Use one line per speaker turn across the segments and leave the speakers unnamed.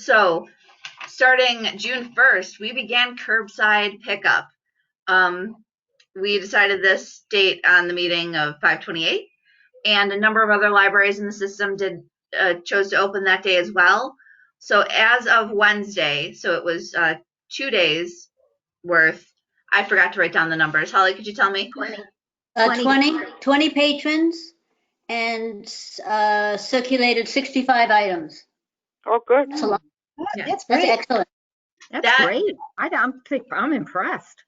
So, starting June 1st, we began curbside pickup. Um, we decided this date on the meeting of 528, and a number of other libraries in the system did uh, chose to open that day as well. So, as of Wednesday, so it was uh, two days worth. I forgot to write down the numbers. Holly, could you tell me?
Uh,
20.
20, 20 patrons and uh, circulated 65 items.
Oh, good.
That's a lot.
Yeah.
That's
That's great.
excellent.
That's
That-
great. I, I'm, think- I'm impressed.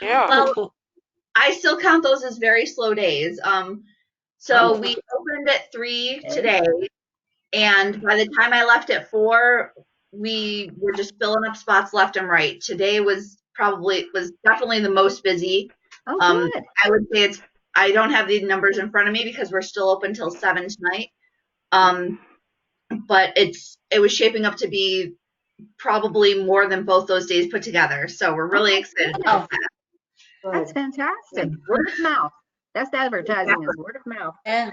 Yeah.
Well, I still count those as very slow days. Um, so we opened at three today, and by the time I left at four, we were just filling up spots left and right. Today was probably was definitely the most busy.
Oh,
Um,
good.
I would say it's I don't have the numbers in front of me because we're still open till seven tonight. Um, but it's it was shaping up to be probably more than both those days put together. So we're really excited about that.
That's fantastic. Word of mouth. That's advertising is word of mouth.
Yeah.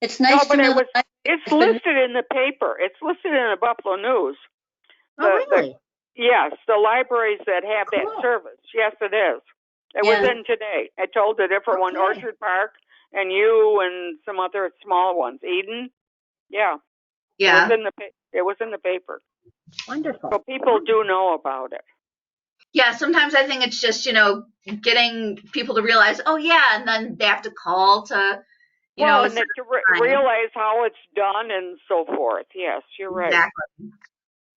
It's nice to
but I
know.
was-
that-
It's listed in the paper. It's listed in the Buffalo News.
Oh,
The- the-
really?
Yes, the libraries that have that
Cool.
service. Yes, it is. It was
Yeah.
in today. I told the different one,
Okay.
Orchard Park, and you and some other small ones, Eden. Yeah.
Yeah.
It was in the, pa- it was in the paper. So
Wonderful.
people do know about it.
Yeah, sometimes I think it's just, you know, getting people to realize, oh yeah, and then they have to call to, you
well,
know,
and that to re-
time.
realize how it's done and so forth. Yes, you're right.
exactly.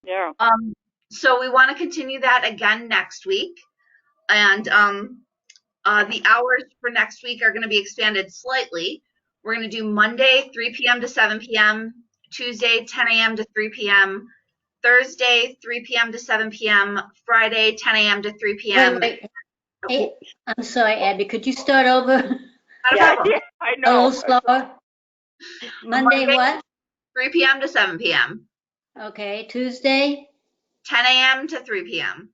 Yeah.
Um, so we want to continue that again next week, and um, uh, the hours for next week are going to be expanded slightly. We're going to do Monday 3 p.m. to 7 p.m., Tuesday 10 a.m. to 3 p.m., Thursday 3 p.m. to 7 p.m., Friday 10 a.m. to 3 p.m.
wait, wait. Hey, I'm sorry, Abby, could you start over
Not a
Yeah,
problem.
yeah, I
a
know.
little slower? Monday what?
3 p.m. to 7 p.m.
Okay, Tuesday,
10 a.m. to 3 p.m.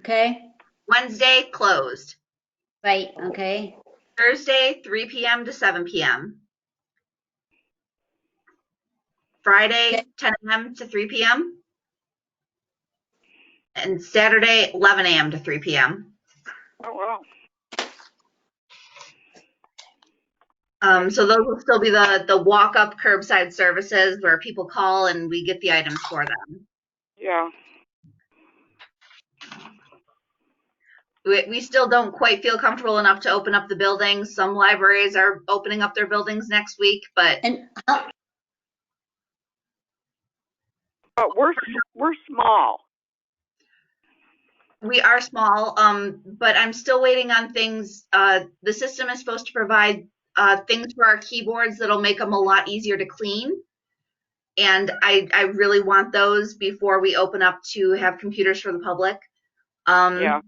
okay,
Wednesday closed.
right, okay,
Thursday 3 p.m. to 7 p.m. Friday
Okay.
10 a.m. to 3 p.m. And Saturday 11 a.m. to 3 p.m.
Oh, well.
Um, so those will still be the the walk up curbside services where people call and we get the items for them.
Yeah.
We, we still don't quite feel comfortable enough to open up the buildings. Some libraries are opening up their buildings next week, but
and how,
But we're s- we're small.
We are small, um, but I'm still waiting on things. Uh, the system is supposed to provide uh, things for our keyboards that'll make them a lot easier to clean. And I, I really want those before we open up to have computers for the public. Um,
Yeah.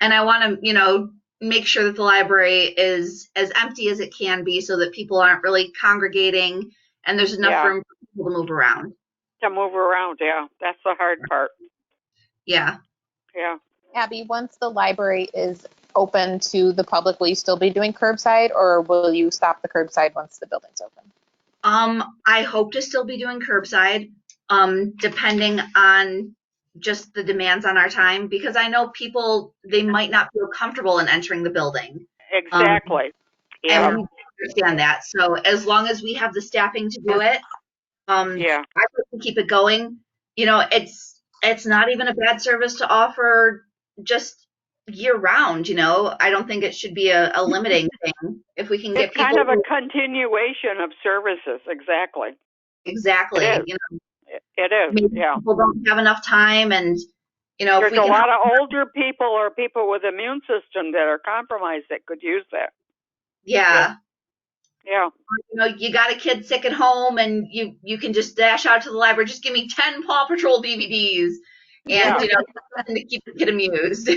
And I want to, you know, make sure that the library is as empty as it can be so that people aren't really congregating and there's enough
Yeah.
room for people to move around.
To move around, yeah. That's the hard part.
Yeah.
Yeah.
Abby, once the library is open to the public, will you still be doing curbside or will you stop the curbside once the building's open?
Um, I hope to still be doing curbside, um, depending on just the demands on our time, because I know people, they might not feel comfortable in entering the building. Um,
Exactly. yeah.
And we understand that. So as long as we have the staffing to do it, um,
yeah.
I hope to keep it going. You know, it's, it's not even a bad service to offer just year round, you know? I don't think it should be a, a limiting thing. If we can get
It's
people.
kind of a
who-
continuation of services. Exactly.
Exactly,
it is.
you know?
It- It is.
maybe
Yeah.
people don't have enough time and you know if
There's
we
a
can
lot of older people or people with immune system that are compromised that could use that.
yeah
Yeah.
you know you got a kid sick at home and you you can just dash out to the library just give me 10 paw patrol dvds and
Yeah.
you know something to keep the kid amused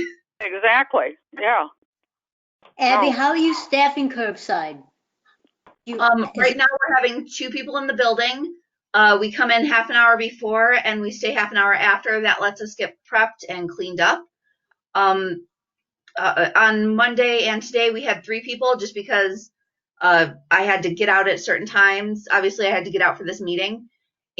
Exactly. Yeah.
Abby,
Oh.
how are you staffing curbside? You-
um
is-
right now we're having two people in the building uh we come in half an hour before and we stay half an hour after that lets us get prepped and cleaned up um uh, on Monday and today we had three people just because uh, I had to get out at certain times. Obviously, I had to get out for this meeting,